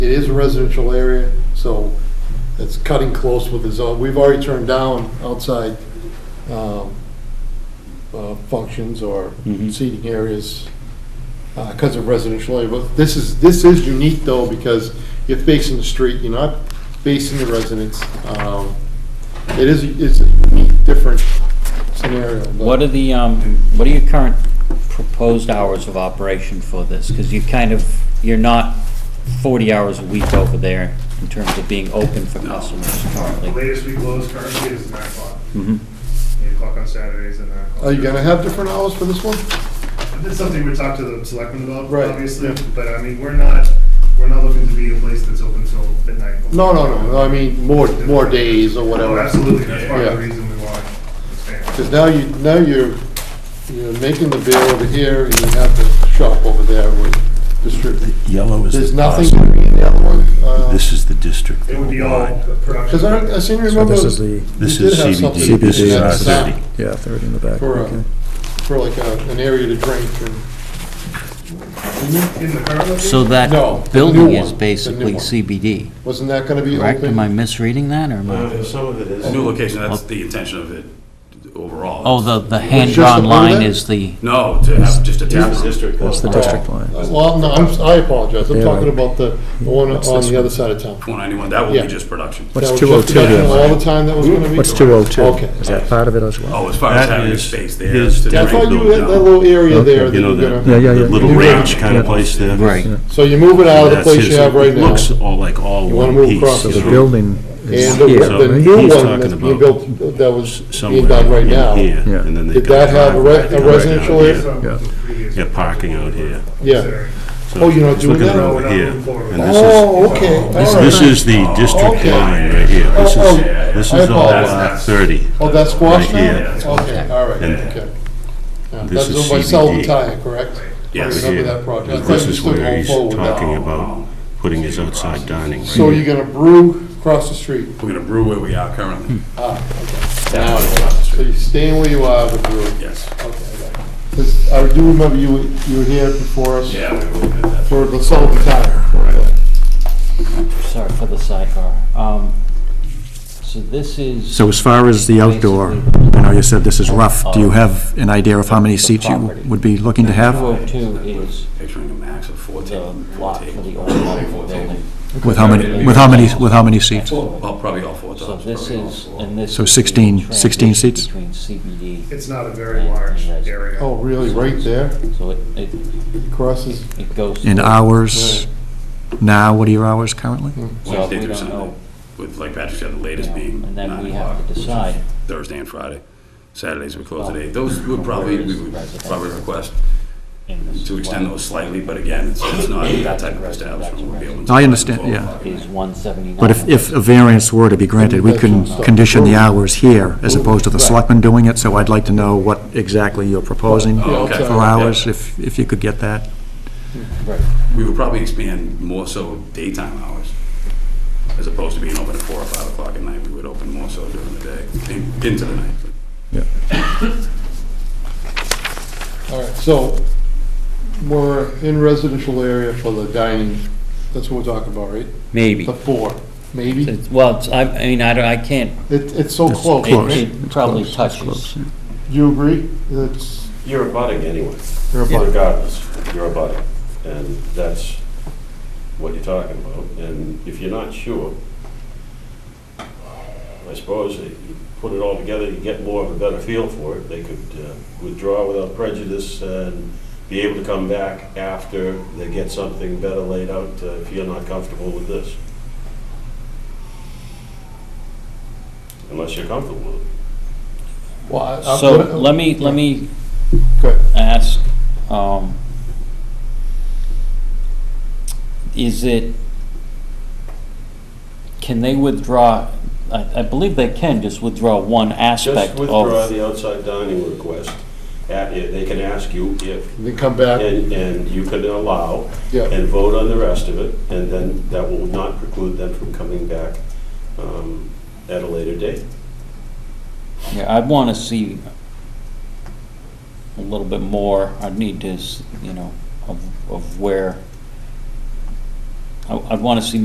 It is a residential area, so it's cutting close with the zone. We've already turned down outside um, uh, functions or Mhm. seating areas because of residential area. But this is, this is unique though, because you're facing the street, you're not facing the residents. Um, It is, it's a unique, different scenario. but- What are the, um, what are your current proposed hours of operation for this? Because you kind of, you're not forty hours a week over there in terms of being open for customers The currently. latest we close currently is nine o'clock, Mhm. eight o'clock on Saturdays and nine o'clock. Mm-hmm. Are you gonna have different hours for this one? That's something we talked to the selectmen about, Right, obviously, yeah. but I mean, we're not, we're not looking to be a place that's open till midnight. No, no, no, no, I mean, more, more days or Oh, whatever. absolutely, that's part of the Yeah. reason we want to expand. Because now you, now you're, you're making the bill over here, and you have the shop over there with distribute. Yellow is There's the nothing positive. gonna be in the other one. This is the district. It would be all line. production. Because I, I seem to remember. this is the- you This did is have CBD. something CBD. that This is had our some- city. uh, Yeah, third in the back, For, uh, okay. for like a, an area to drink and. In the current location? So No, that the building new is one, the new basically one. CBD, Wasn't that gonna be correct? open? Am I misreading that, or am I? Uh, Some of it is. New location, Oh. that's the intention of it overall. Oh, the, the It's just a hand-drawn line building? is the, No, to have just a tap That's room. the district. That's the Oh, district line. Well, no, I'm, s- I apologize, I'm Yeah, talking right. about the, the one That's on this the other one. side of town. 191, that will Yeah. be just production. What's That was 202 just- here? All the time that was gonna be? What's 202? Okay. Is that part of it as well? Oh, as far as That having a is- space there. is to I drink thought you built had that down. little area there You that you know, were the, gonna, Yeah, yeah, yeah. the little Yeah. ranch kind Yeah. of place there. right, so you move it out of the That's place you his- have right now. Looks all like all You wanna one move piece. across So the you the know. building is And the, here, the right? he- new he's one that's talking being about built, that was being Somewhere done right in now. here, Yeah. and then they've Did got that have a re- driveway right a out residential here. area? Some Yeah. of the previous- Yeah, parking out here. Yeah. So Oh, you're not it's doing looking that? over here, and this is- Oh, okay, all This right. is the district Okay. line right here. This Oh, is, oh, this I is all apologize. lot 30. Oh, that's squash Right now? here. Okay, all right, And okay. Yeah, this That's is owned by Sullivan CBD. Tire, correct? Yes. I remember that project. I thought This you is still where going he's forward with that. talking about putting his outside dining. So right you're gonna brew across the street? We're going to brew where we are currently. Ah, okay. Now it's across the So street. you're staying where you are with brew? Yes. Okay, I got it. 'Cause I do remember you, were- you were here before us Yeah, we will get that. for the Sullivan Tire. Correct. sorry for the sidebar. Um, So this is. So as far as the outdoor, I know you said this is rough, do you have an idea of how many seats you would be looking to have? 202 is Picturing a max of four the tables. lot for the old level building. With how many, with how many, with how many seats? Well, probably all four So tables. this probably all is, four. and this. So is the 16 16 transition seats? Between CBD, It's not a very large area. Oh, really, right there, so it, it crosses, it goes. In through. hours? Now, what are your hours currently? So Wednesday we through don't know, Sunday, with, like Patrick said, the you know, latest being and then nine we have o'clock, to decide. Thursday and Friday. Saturdays we close Well, at eight. Those would probably, where is we would residential? probably request in this to extend one those slightly, but again, it's it's not that type of establishment we'll be able to. I understand, yeah. Is 179. But if, if a variance were to be granted, we can condition the hours here as opposed to the selectmen doing it, so I'd like to know what exactly you're proposing Oh, okay. for hours, if, if you could get that. Right. We would probably expand more so daytime hours, as opposed to being open at four or five o'clock at night. We would open more so during the day, in- into the night. all right, so we're in residential area for the dining, that's what we're talking about, right? Maybe. The four, maybe, It's- Well, it's- I, I mean, I don't, I can't, it, it's so It's close, it- close. right? it probably It's close, it's touches. close, yeah. You agree, that's, You're abutting anyway, you're about, regardless, you're abutting, and that's what you're talking about, and if you're not sure, I suppose if you put it all together, you get more of a better feel for it, they could uh, withdraw without prejudice and be able to come back after they get something better laid out, uh, if you're not comfortable with this. Unless you're comfortable with it. well, I- I'm. So gonna- let me, let me Go ahead. ask, um, is it, can they withdraw, I, I believe they can just withdraw one aspect Just withdraw of, the outside dining request. Uh, They can ask you if, Then come back, and, and you can allow yeah, and vote on the rest of it, and then that will not preclude them from coming back um, at a later date. yeah, I'd wanna see a little bit more, I'd need to, s- you know, of, of where, I- I'd want to see